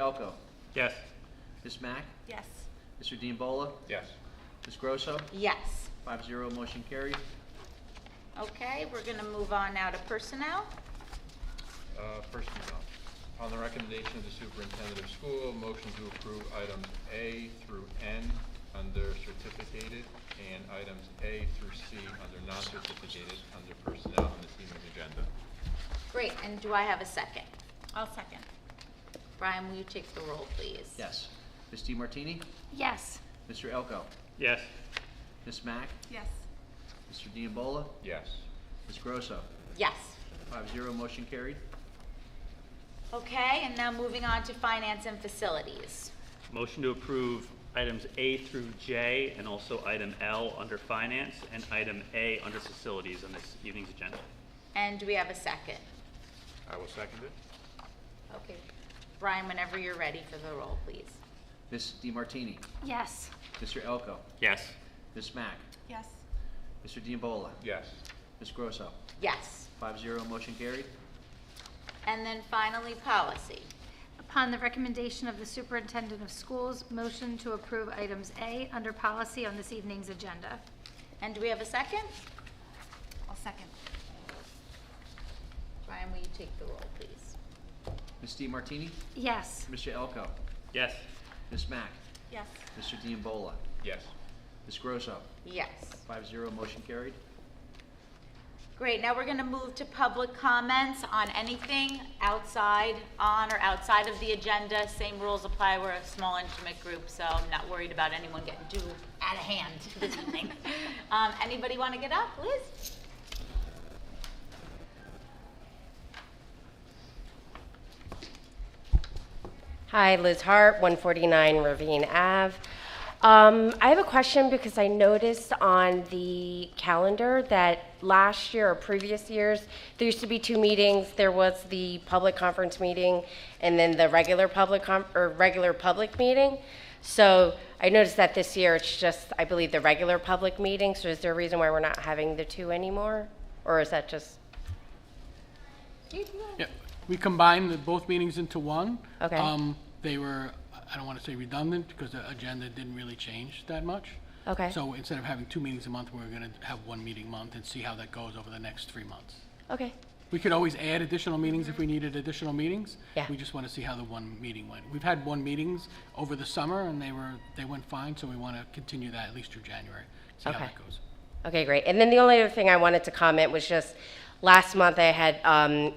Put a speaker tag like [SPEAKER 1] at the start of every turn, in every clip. [SPEAKER 1] Falco,
[SPEAKER 2] Yes.
[SPEAKER 1] Ms. Mack,
[SPEAKER 3] Yes.
[SPEAKER 1] Mr. Diambola,
[SPEAKER 2] Yes.
[SPEAKER 1] Ms. Grosso,
[SPEAKER 3] Yes.
[SPEAKER 1] five zero, motion carried.
[SPEAKER 3] Okay, we're gonna move on now to personnel.
[SPEAKER 4] Uh, Personnel. On the recommendation of the superintendent of school, motion to approve items A through N under certificated and items A through C under non-certificated under personnel on this evening's agenda.
[SPEAKER 3] Great, and do I have a second?
[SPEAKER 5] I'll second.
[SPEAKER 3] Brian, will you take the roll, please?
[SPEAKER 1] Yes. Ms. DeMartini,
[SPEAKER 5] Yes.
[SPEAKER 1] Mr. Elko,
[SPEAKER 2] Yes.
[SPEAKER 1] Ms. Mack,
[SPEAKER 5] Yes.
[SPEAKER 1] Mr. Diambola,
[SPEAKER 4] Yes.
[SPEAKER 1] Ms. Grosso,
[SPEAKER 3] Yes.
[SPEAKER 1] five zero, motion carried.
[SPEAKER 3] Okay, and now moving on to finance and facilities.
[SPEAKER 2] Motion to approve items A through J and also item L under finance and item A under facilities on this evening's agenda.
[SPEAKER 3] And do we have a second?
[SPEAKER 4] I will second it.
[SPEAKER 3] Okay. Brian, whenever you're ready for the roll, please.
[SPEAKER 1] Ms. DeMartini,
[SPEAKER 5] Yes.
[SPEAKER 1] Mr. Elko,
[SPEAKER 2] Yes.
[SPEAKER 1] Ms. Mack,
[SPEAKER 5] Yes.
[SPEAKER 1] Mr. Diambola,
[SPEAKER 4] Yes.
[SPEAKER 1] Ms. Grosso,
[SPEAKER 3] Yes.
[SPEAKER 1] five zero, motion carried.
[SPEAKER 3] And then finally, policy.
[SPEAKER 6] Upon the recommendation of the superintendent of schools, motion to approve items A under policy on this evening's agenda.
[SPEAKER 3] And do we have a second?
[SPEAKER 5] I'll second.
[SPEAKER 3] Brian, will you take the roll, please?
[SPEAKER 1] Ms. DeMartini,
[SPEAKER 6] Yes.
[SPEAKER 1] Mr. Elko,
[SPEAKER 2] Yes.
[SPEAKER 1] Ms. Mack,
[SPEAKER 5] Yes.
[SPEAKER 1] Mr. Diambola,
[SPEAKER 4] Yes.
[SPEAKER 1] Ms. Grosso,
[SPEAKER 3] Yes.
[SPEAKER 1] five zero, motion carried.
[SPEAKER 3] Great, now we're going to move to public comments on anything outside, on or outside of the agenda. Same rules apply, we're a small intimate group, so I'm not worried about anyone getting too out of hand this evening. Um, Anybody want to get up? Liz?
[SPEAKER 7] Hi, Liz Hart, 149 Ravine Ave. Um, I have a question because I noticed on the calendar that last year or previous years, there used to be two meetings. There was the public conference meeting and then the regular public com, or regular public meeting. So I noticed that this year it's just, I believe, the regular public meeting. So is there a reason why we're not having the two anymore? Or is that just?
[SPEAKER 8] Yeah, we combined the- both meetings into one.
[SPEAKER 7] Okay.
[SPEAKER 8] Um, They were, I don't want to say redundant, because the agenda didn't really change that much.
[SPEAKER 7] Okay.
[SPEAKER 8] So instead of having two meetings a month, we're going to have one meeting a month and see how that goes over the next three months.
[SPEAKER 7] Okay.
[SPEAKER 8] We could always add additional meetings if we needed additional meetings.
[SPEAKER 7] Yeah.
[SPEAKER 8] We just want to see how the one meeting went. We've had one meetings over the summer, and they were, they went fine, so we want to continue that at least through January, see how
[SPEAKER 7] Okay.
[SPEAKER 8] that goes.
[SPEAKER 7] Okay, great. And then the only other thing I wanted to comment was just last month I had um,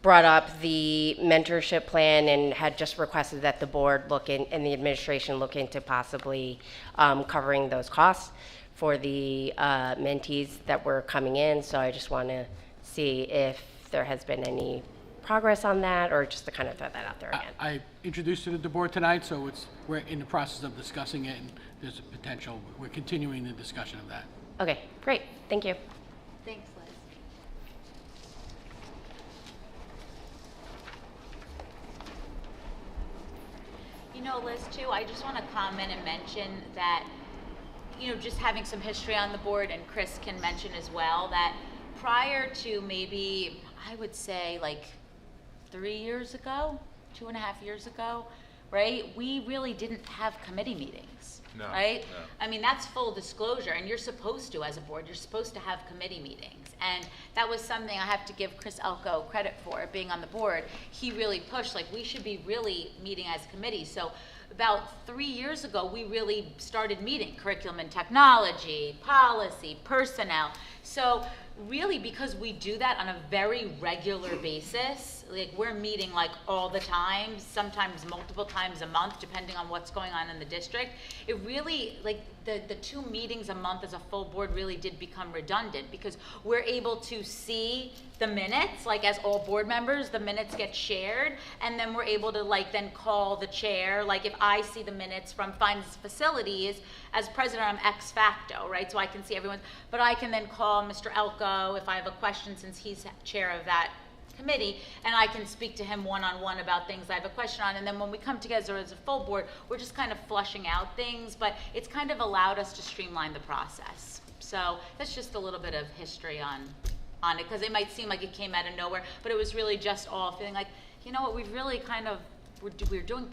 [SPEAKER 7] brought up the mentorship plan and had just requested that the board look in and the administration look into possibly um, covering those costs for the uh, mentees that were coming in. So I just want to see if there has been any progress on that or just to kind of throw that out there
[SPEAKER 8] I-
[SPEAKER 7] again.
[SPEAKER 8] I introduced it at the board tonight, so it's, we're in the process of discussing it, and there's a potential, we're continuing the discussion of that.
[SPEAKER 7] Okay, great. Thank you.
[SPEAKER 3] Thanks, Liz. You know, Liz, too, I just want to comment and mention that, you know, just having some history on the board, and Chris can mention as well, that prior to maybe, I would say, like, three years ago, two and a half years ago, right, we really didn't have committee meetings.
[SPEAKER 4] No,
[SPEAKER 3] Right?
[SPEAKER 4] no.
[SPEAKER 3] I mean, that's full disclosure, and you're supposed to, as a board, you're supposed to have committee meetings. And that was something I have to give Chris Elko credit for, being on the board. He really pushed, like, we should be really meeting as committees. So about three years ago, we really started meeting curriculum and technology, policy, personnel. So really, because we do that on a very regular basis, like we're meeting like all the time, sometimes multiple times a month, depending on what's going on in the district. It really, like the, the two meetings a month as a full board really did become redundant because we're able to see the minutes, like as all board members, the minutes get shared, and then we're able to like then call the chair, like if I see the minutes from finance facilities, as president, I'm ex facto, right, so I can see everyone, but I can then call Mr. Elko if I have a question, since he's chair of that committee, and I can speak to him one-on-one about things I have a question on, and then when we come together as a full board, we're just kind of flushing out things, but it's kind of allowed us to streamline the process. So that's just a little bit of history on, on it, because it might seem like it came out of nowhere, but it was really just all feeling like, you know what, we've really kind of, we're, do- we're doing